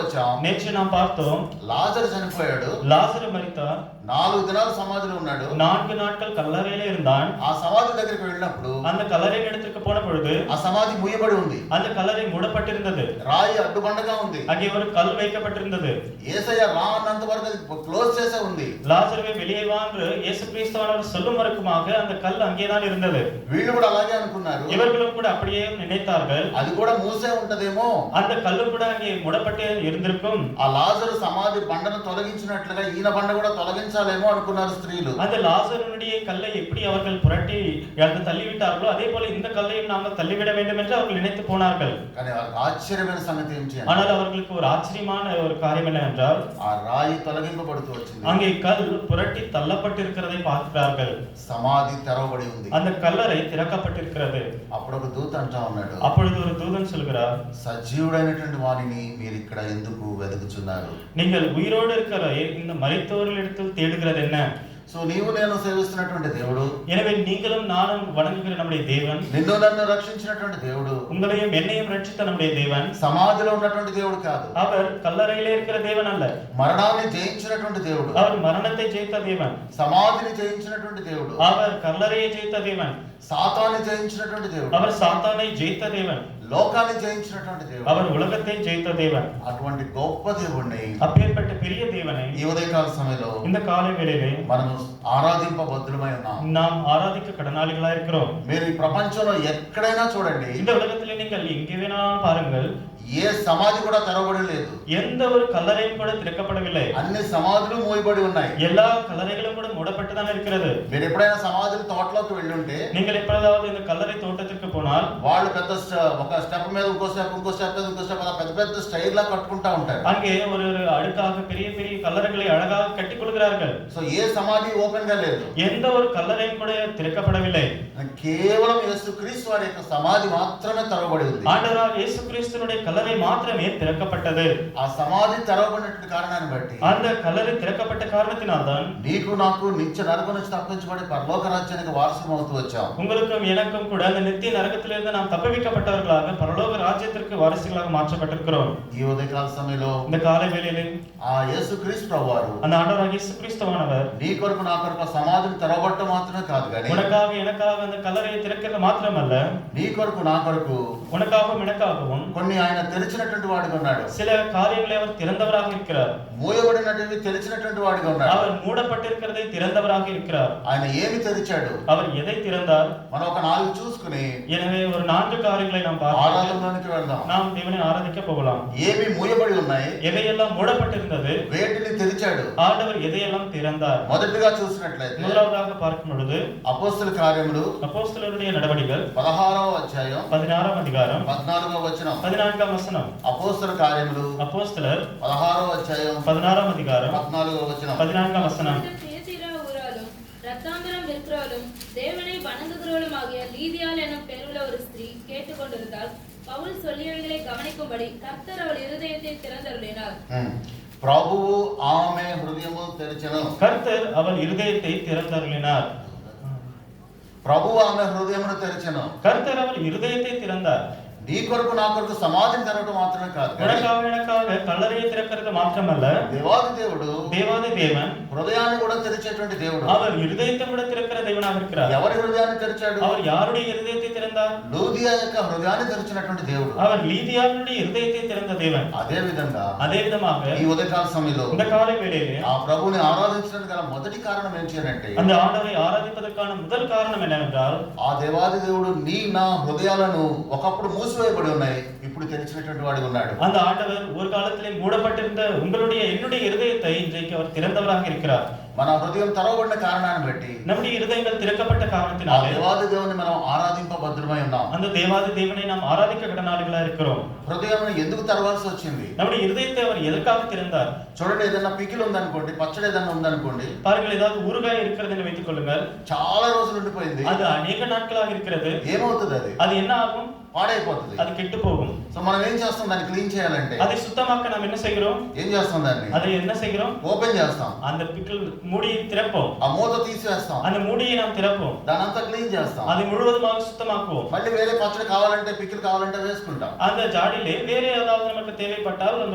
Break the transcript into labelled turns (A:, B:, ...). A: వచ్చాం
B: நேற்று நாம் பார்த்தோம்
A: లాజర్ చనిపోయాడు
B: லாசரு மரித்தார்
A: నాలుగు దినాలు సమాధిలో ఉన్నాడు
B: நான்கு నాட்கள் கல்லறையில இருந்தான்
A: ఆ సమాధి దగ్గరికి వెళ్ళినప్పుడు
B: அந்த கல்லறை இடத்துக்கு போன பொழுது
A: ఆ సమాధి మూయబడి ఉంది
B: அந்த கல்லறை மூடப்பட்டிருந்தது
A: రాయి అడ్డుబండగా ఉంది
B: அங்கே ஒரு కల్ வைக்கப்பட்டிருந்தது
A: ఏసయ్య రా అన్నంత వరకు అది క్లోజ్ చేసే ఉంది
B: லாசருவை வெளியே வா என்று இயேசு கிறிஸ்தவானவர் சொல்லும் வரைக்குமாக அந்த கல் அங்கேதான் இருந்தது
A: వీళ్ళు కూడా అలాగే అనుకున్నారు
B: இவர்களும் கூட அப்படியே நினைத்தார்கள்
A: అది కూడా మూసే ఉంటదేమో
B: அந்த கல்லு கூட அங்கே முடப்பட்டே இருந்திருக்கும்
A: ఆ లాజరు సమాధి బండను తొలగించినట్లుగా ఈయన బండ కూడా తొలగించాలేమో అనుకున్నారు స్త్రీలు
B: அந்த லாசருடைய கல்லை எப்படி அவர்கள் புரட்டி அந்த தள்ளிவிட்டார்களோ அதே போல இந்த கல்லையும் நாங்கள் தள்ளிவிட வேண்டும் என்று அவர்கள் நினைத்து போனார்கள்
A: కానీ వారికి ఆశ్చర్యమైన సంగతి ఏంటి అంటే,
B: ஆனால் அவர்களுக்கு ஒரு ஆச்சரியமான ஒரு காரியம் என்னவென்றால்
A: ఆ రాయి తొలగింపబడుతూ వచ్చింది
B: அங்கே கல் புரட்டி தள்ளப்பட்டிருக்கிறதை பார்க்கிறார்கள்
A: సమాధి తెరవబడి ఉంది
B: அந்த கல்லறை திறக்கப்பட்டிருக்கிறது
A: అప్పుడు ఒక దూత అంటా ఉన్నాడు
B: அப்பொழுது ஒரு தூதன் சொல்கிறார்
A: సజీవుడైనటువంటి వారిని మీరు ఇక్కడ ఎందుకు వెతుకుతున్నారు
B: நீங்கள் உயிரோடு இருக்கிற இந்த மறைத்தோரிடத்தில் தேடுகிறது என்ன
A: సో నీవు నేను సేవిస్తున్నటువంటి దేవుడు
B: எனவே நீங்களும் நானும் வணங்குகிற நம்முடைய தேவன்
A: నిన్ను నన్ను రక్షించినటువంటి దేవుడు
B: உங்களையும் என்னையும் ரட்சித்த நம்முடைய தேவன்
A: సమాధిలో ఉన్నటువంటి దేవుడు కాదు
B: அவர் கல்லறையிலே இருக்கிற தேவன் அல்ல
A: మరణాన్ని జయించినటువంటి దేవుడు
B: அவர் మరణத்தை జయిత దేవన్
A: సమాధిని జయించినటువంటి దేవుడు
B: அவர் కల్లరయ్య జయిత దేవన్
A: సాతాన్ని జయించినటువంటి దేవుడు
B: அவர் சாத்தானை జయిత దేవన్
A: లోకాన్ని జయించినటువంటి దేవుడు
B: அவர் உலகத்தை ஜெயித்த தேவன்
A: అటువంటి గొప్ప దేవుణ్ణి
B: அப்பேற்பட்ட பெரிய தேவனை
A: ఈ ఉదయకాల సమయంలో
B: இந்த కాల వేళలే
A: మనం ఆరాధింప బద్దులమై ఉన్నాం
B: நாம் ஆராதிக்க கடனாளிகளா இருக்கிறோம்
A: మీరు ఈ ప్రపంచంలో ఎక్కడైనా చూడండి
B: இந்த உலகத்துல நீங்கள் எங்கே வேணாலும் பாருங்கள்
A: ఏ సమాధి కూడా తెరవబడి లేదు
B: எந்த ஒரு கல்லறையும் கூட திறக்கப்படவில்லை
A: అన్ని సమాధులు మూయబడి ఉన్నాయి
B: எல்லா கல்லறைகளும் கூட மூடப்பட்டுதான் இருக்கிறது
A: మీరు ఎప్పుడైనా సమాధుల తోటలోకి వెళ్ళుంటే
B: நீங்கள் எப்பொழுதாவது இந்த కల్లறை తోட்டத்திற்கு போனால்
A: వాళ్ళు పెద్ద స్ట- ఒక స్టెప్ మీద ఇంకో స్టెప్ ఇంకో స్టెప్ మీద ఇంకో స్టెప్ అలా పెద్ద పెద్ద స్టైల్ లా కట్టుకుంటా ఉంటారు
B: அங்கே ஒரு ஒரு அடுக்காக பெரிய பெரிய கல்லறைகளை அழகாக கட்டிக் கொள்கிறார்கள்
A: సో ఏ సమాధి ఓపెన్ గా లేదు
B: எந்த ஒரு కల్లறையும் కూడా திறக்கப்படவில்லை
A: కేవలం యేసుక్రీస్తు వారి యొక్క సమాధి మాత్రమే తెరవబడి ఉంది
B: ஆண்டவராக இயேசு கிறிஸ்துனுடைய கல்லறை మాత్రమే திறக்கப்பட்டது
A: ఆ సమాధి తెరవబడినటువంటి కారణాన్ని బట్టి
B: அந்த கல்லறை திறக்கப்பட்ட காரணத்தினால்தான்
A: నీకు నాకు నిత్య నరక నుంచి తప్పించబడి పరలోక రాజ్యానికి వారసం అవుతూ వచ్చాం
B: உங்களுக்கும் எனக்கும் கூட அந்த நித்திய நரகத்திலிருந்து நாம் தப்புவிக்கப்பட்டவர்களாக பரலோக ராஜ்யத்திற்கு வாரிசுகளாக மாற்றப்பட்டிருக்கிறோம்
A: ఈ ఉదయకాల సమయంలో
B: இந்த காலை வேளையிலே
A: ఆ యేసుక్రీస్తు ప్రభువారు
B: அந்த ஆண்டவராக இயேசு கிறிஸ்துவானவர்
A: నీ కొరకు నా కొరకు ఆ సమాధిని తెరవబడటం మాత్రమే కాదు కానీ
B: உனக்காக எனக்காக அந்த கல்லறையை திறக்கிறது మాత్రమల్ల
A: నీ కొరకు నా కొరకు
B: உனக்காகவும் எனக்காகவும்
A: కొన్ని ఆయన తెరిచినటువంటి వాడిగా ఉన్నాడు
B: சில காரியங்களை அவர் திறந்தவராக இருக்கிறார்
A: మూయబడినటువంటి తెరిచినటువంటి వాడిగా ఉన్నాడు
B: அவர் மூடப்பட்டிருக்கிறதை திறந்தவராக இருக்கிறார்
A: ఆయన ఏమి తెరిచాడు
B: அவர் எதை திறந்தார்
A: మనం ఒక నాలుగు చూసుకుని
B: எனவே ஒரு నాలుగు కార్యங்களை நாம் பார்க்கலாம்
A: ఆరాధనలోనికి వెళ్దాం
B: நாம் தேவனை ஆராதிக்க போகலாம்
A: ఏమి మూయబడి ఉన్నాయి
B: எதையெல்லாம் மூடப்பட்டிருந்தது
A: వేటిని తెరిచాడు
B: ஆண்டவர் எதையெல்லாம் திறந்தார்
A: మొదటిగా చూసినట్లయితే
B: முதலாவதாக பார்க்கும் பொழுது
A: అపోస్తుల కార్యములు
B: அப்போஸ்தலருடைய நடவடிக்கைகள்
A: పదహారవ అధ్యాయం
B: பதினாறாம் அதிகாரம்
A: పద్నాలుగవ వచనం
B: பதினான்காம் வசனம்
A: అపోస్తుల కార్యములు
B: அப்போஸ்தலர்
A: పదహారవ అధ్యాయం
B: பதினாறாம் அதிகாரம்
A: పద్నాలుగవ వచనం
B: பதினான்காம் வசனம்
C: இந்த பேசிரா ஊராலும் ரத்தாந்திரம் விற்கிறவளும் தேவனை வணங்குகிறவளுமாகிய லீதியாள் எனும் பெயருள்ள ஒரு ஸ்திரீ கேட்டுக்கொண்டிருந்தால் பவுல் சொல்லியவைகளை கவனிக்கும்படி கர்த்தர் அவள் இருதயத்தை திறந்தருளினார்
A: ఉం. ప్రభువు ఆమె హృదయము తెరిచను
B: கர்த்தர் அவள் இருதயத்தை திறந்தருளினார்
A: ప్రభువు ఆమె హృదయమును తెరిచను
B: கர்த்தர் அவள் இருதயத்தை திறந்தார்
A: నీ కొరకు నా కొరకు సమాధిని తెరవడం మాత్రమే కాదు కానీ
B: உனக்காக எனக்காக கல்லறையை திறக்கிறது மாத்திரமல்ல
A: దేవాది దేవుడు
B: தேவாதி தேவன்
A: హృదయాన్ని కూడా తెరిచేటువంటి దేవుడు
B: அவர் இருதயத்தை கூட திறக்கிற தேவனாக இருக்கிறார்
A: ఎవరి హృదయాన్ని తెరిచాడు
B: அவர் யாருடைய இருதயத்தை திறந்தார்
A: లూదియా యొక్క హృదయాన్ని తెరిచినటువంటి దేవుడు
B: அவர் லீதியாருடைய இருதயத்தை திறந்த தேவன்
A: అదే విధంగా
B: அதே విధமாக
A: ఈ ఉదయకాల సమయంలో
B: இந்த காலை வேளையிலே
A: ఆ ప్రభుని ఆరాధించడానికి గల మొదటి కారణం ఏంటంటే
B: அந்த ஆண்டவரை ஆராதிப்பதற்கான முதல் காரணம் என்னவென்றால்
A: ఆ దేవాది దేవుడు నీ నా హృదయాలను ఒకప్పుడు మూసివేయబడి ఉన్నాయి ఇప్పుడు తెరిచినటువంటి వాడు ఉన్నాడు
B: அந்த ஆண்டவர் ஒரு காலத்திலே மூடப்பட்டிருந்த உங்களுடைய என்னுடைய இருதயத்தை இன்றைக்கு அவர் திறந்தவராக இருக்கிறார்
A: మన హృదయం తెరవబడిన కారణాన్ని బట్టి
B: நம்முடைய இருதயங்கள் திறக்கப்பட்ட
A: ఆ
B: காரணத்தினாலே
A: దేవాది దేవుని మనం ఆరాధింపభద్రమై ఉన్నాం
B: அந்த தேவாதி தேவனை நாம் ஆராதிக்க கடனாளிகளா இருக்கிறோம்
A: హృదయం ఎందుకు తెరవాల్సి వచ్చింది
B: நம்முடைய இருதயத்தை அவர் ఎదకాக திறந்தார்
A: చూడండి ఏదైనా పికిల్ ఉందనుకోండి పచ్చడి ఏదైనా ఉందనుకోండి
B: பாருங்கள் ஏதாவது ஊறுகாய் இருக்கிறது என்று வைத்துக் கொள்ளுங்கள்
A: చాలా రోజులు ఉండిపోయింది
B: அது அநேக நாட்களாக இருக்கிறது
A: ఏమవుతుంది అది
B: அது என்ன ஆகும்
A: పాడైపోతుంది
B: அது கெட்டு போகும்
A: సో మనం ఏం చేస్తాం దాన్ని క్లీన్ చేయాలంటే
B: அதை சுத்தமாக்க நாம் என்ன செய்கிறோம்
A: ఏం చేస్తాం దాన్ని
B: அதை என்ன செய்கிறோம்
A: ఓపెన్ చేస్తాం
B: அந்த பிக்கல் மூடியை திறப்போம்
A: ఆ మూత తీసేస్తాం
B: அந்த மூடியை நாம் திறப்போம்
A: దాని అంతా క్లీన్ చేస్తాం
B: அதை முழுவதுமாக సుత్తమాకుவோం
A: మళ్ళీ వేరే పచ్చడి కావాలంటే పికిల్ కావాలంటే వేసుకుంటాం
B: அந்த ஜாடியிலே வேறு ஏதாவது நமக்கு தேவைப்பட்டால் அந்த